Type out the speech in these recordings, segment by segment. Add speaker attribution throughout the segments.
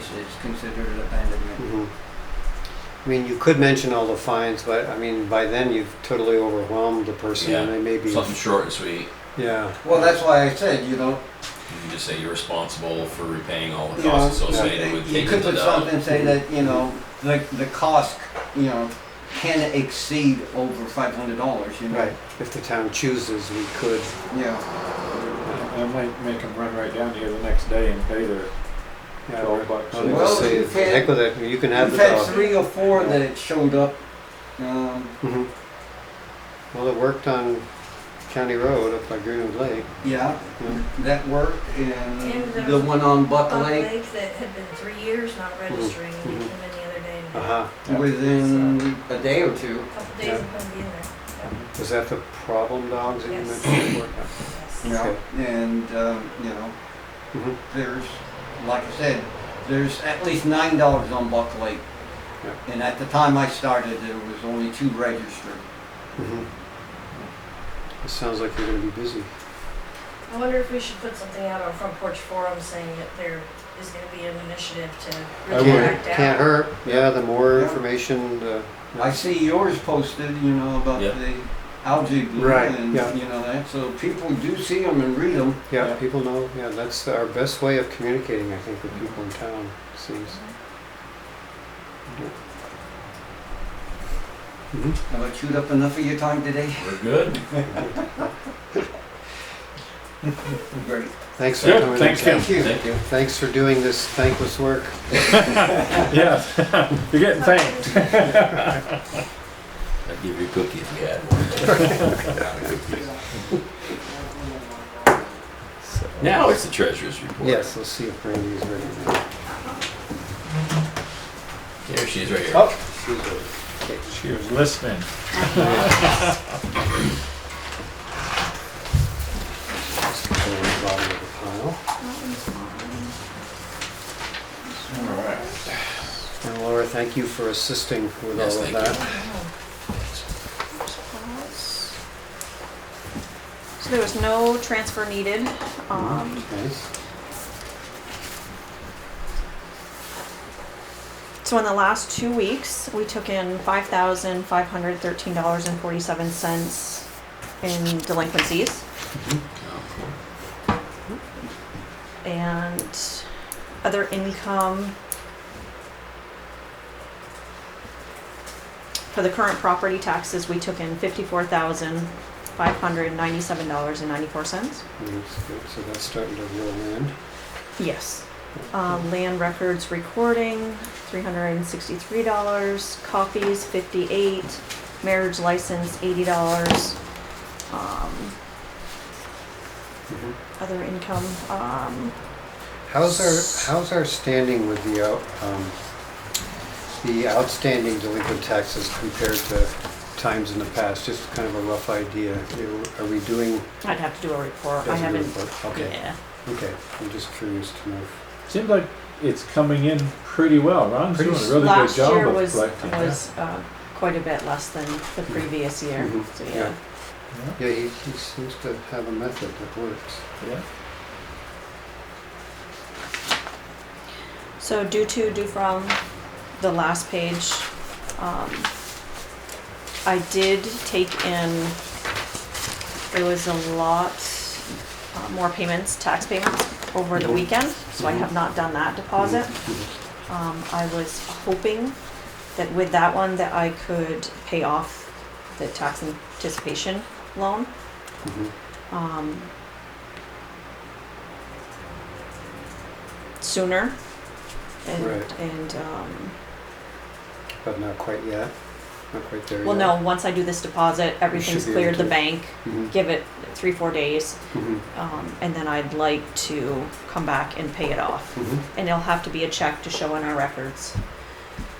Speaker 1: it's considered abandonment.
Speaker 2: Mhm. I mean, you could mention all the fines, but I mean, by then you've totally overwhelmed the person and they may be,
Speaker 3: Something short and sweet.
Speaker 2: yeah.
Speaker 1: Well, that's why I said, you know,
Speaker 3: You can just say you're responsible for repaying all the
Speaker 1: You
Speaker 3: costs
Speaker 1: know,
Speaker 3: associated with
Speaker 1: you
Speaker 3: taking
Speaker 1: could
Speaker 3: the
Speaker 1: put
Speaker 3: dog.
Speaker 1: something, say that, you know, the, the cost, you know, can exceed over five hundred dollars, you know?
Speaker 2: Right, if the town chooses, we could,
Speaker 1: Yeah,
Speaker 4: I might make them run right down here the next day and pay their
Speaker 2: yeah.
Speaker 4: twelve bucks.
Speaker 2: I would
Speaker 1: Well,
Speaker 2: just say,
Speaker 1: you can-
Speaker 2: heck with it, you can have
Speaker 1: we've
Speaker 2: the
Speaker 1: had
Speaker 2: dog.
Speaker 1: three or four that showed up, um,
Speaker 2: Mhm. Well, it worked on County Road up by Greenwood Lake.
Speaker 1: yeah,
Speaker 2: Yeah.
Speaker 1: that worked,
Speaker 5: And
Speaker 1: and
Speaker 5: there
Speaker 1: the
Speaker 5: was
Speaker 1: one on Buck
Speaker 5: Buck
Speaker 1: Lake,
Speaker 5: Lake that had been three years not registering, and he came in the other day and
Speaker 2: Mm-hmm. Uh-huh,
Speaker 1: within a day or two.
Speaker 5: a couple days of him being there.
Speaker 2: was that the problem dogs that you
Speaker 5: Yes.
Speaker 2: mentioned? before?
Speaker 1: Yeah, and, um, you know,
Speaker 2: Mhm.
Speaker 1: there's, like I said, there's at least nine dollars on Buck Lake.
Speaker 2: Yeah.
Speaker 1: And at the time I started, there was only two registered.
Speaker 2: Mhm. It sounds like you're gonna be busy.
Speaker 5: I wonder if we should put something out on Front Porch Forum saying that there is gonna be an initiative to
Speaker 2: Can't-
Speaker 5: really act out.
Speaker 2: Can't hurt, yeah, the more
Speaker 1: Yeah.
Speaker 2: information, the.
Speaker 1: I see yours posted, you know, about
Speaker 3: Yeah.
Speaker 1: the algae bloom
Speaker 2: Right,
Speaker 1: and,
Speaker 2: yeah.
Speaker 1: you know, that, so people do see them and read them.
Speaker 2: Yeah,
Speaker 4: Yeah.
Speaker 2: people know, yeah, that's our best way of communicating, I think, with people in town, it seems. Mhm.
Speaker 1: Have I chewed up enough of your time today?
Speaker 3: We're good.
Speaker 1: Great.
Speaker 2: Thanks for
Speaker 4: Good,
Speaker 2: coming in.
Speaker 4: thanks,
Speaker 2: Ken.
Speaker 1: Thank you.
Speaker 3: Thank you.
Speaker 2: Thanks for doing this thankless work.
Speaker 4: Yeah, you're getting thanked.
Speaker 3: I'd give you a cookie if you had one. Now it's the treasurer's report.
Speaker 2: Yes, let's see if Brandy's ready.
Speaker 3: Here she is right here.
Speaker 2: Oh, she's ready.
Speaker 4: She was listening.
Speaker 2: Just go to the bottom of the pile. And Laura, thank you for assisting with all
Speaker 3: Yes,
Speaker 2: of
Speaker 3: thank you.
Speaker 2: that.
Speaker 6: So there was no transfer needed. Um,
Speaker 2: Nice.
Speaker 6: So in the last two weeks, we took in five thousand five hundred thirteen dollars and forty-seven cents in delinquencies. And other income for the current property taxes, we took in fifty-four thousand five hundred ninety-seven dollars and ninety-four cents.
Speaker 2: That's good. So that's starting to roll in.
Speaker 6: Yes. Um, land records recording, three hundred and sixty-three dollars, copies, fifty-eight, marriage license, eighty dollars. Um,
Speaker 2: Mhm.
Speaker 6: other income, um,
Speaker 2: How's our, how's our standing with the, out- um, the outstanding delinquent taxes compared to times in the past? Just kind of a rough idea. You- Are we doing?
Speaker 6: I'd have to do a report, I
Speaker 2: as we
Speaker 6: haven't,
Speaker 2: report? Okay,
Speaker 6: yeah.
Speaker 2: okay. I'm just curious to know. if-
Speaker 4: Seems like it's coming in pretty well. Ron's
Speaker 2: Pretty
Speaker 4: doing a
Speaker 2: s-
Speaker 4: really good
Speaker 6: Last
Speaker 4: job
Speaker 6: year
Speaker 4: of
Speaker 6: was,
Speaker 4: collecting.
Speaker 6: was, uh, quite a bit less than the previous year,
Speaker 2: Mhm.
Speaker 6: so
Speaker 2: Yeah.
Speaker 6: yeah.
Speaker 2: Yeah, he, he seems to have a method that works.
Speaker 4: Yeah.
Speaker 6: So due to, due from, the last page, um, I did take in, there was a lot uh, more payments, tax payments over the
Speaker 2: Mhm.
Speaker 6: weekend, so I have not done that deposit.
Speaker 2: Mm-hmm.
Speaker 6: Um, I was hoping that with that one that I could pay off the tax anticipation loan.
Speaker 2: Mhm.
Speaker 6: Um, sooner and,
Speaker 2: Right.
Speaker 6: and um,
Speaker 2: But not quite yet. Not quite there yet.
Speaker 6: well no once i do this deposit everything's
Speaker 2: be able
Speaker 6: cleared the
Speaker 2: to-
Speaker 6: bank
Speaker 2: Mhm.
Speaker 6: give it three four days
Speaker 2: Mhm.
Speaker 6: um, and then i'd like to come back and pay it off
Speaker 2: Mhm.
Speaker 6: and it'll have to be a check to show in our records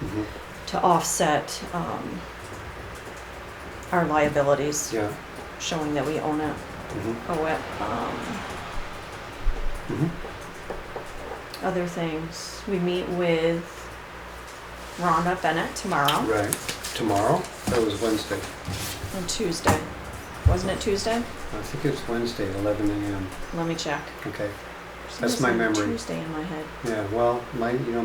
Speaker 2: Mhm.
Speaker 6: to offset um, our liabilities
Speaker 2: Yeah.
Speaker 6: showing that we own it
Speaker 2: Mhm.
Speaker 6: owe it um,
Speaker 2: Mhm.
Speaker 6: other things we meet with rhonda bennett tomorrow
Speaker 2: Right. Tomorrow? That was Wednesday.
Speaker 6: on Tuesday. Wasn't it Tuesday?
Speaker 2: I think it's Wednesday at 11 a.m.
Speaker 6: Let me check.
Speaker 2: Okay.
Speaker 6: For some
Speaker 2: That's my
Speaker 6: reason,
Speaker 2: memory.
Speaker 6: Tuesday in my head.
Speaker 2: Yeah, well, my, you know,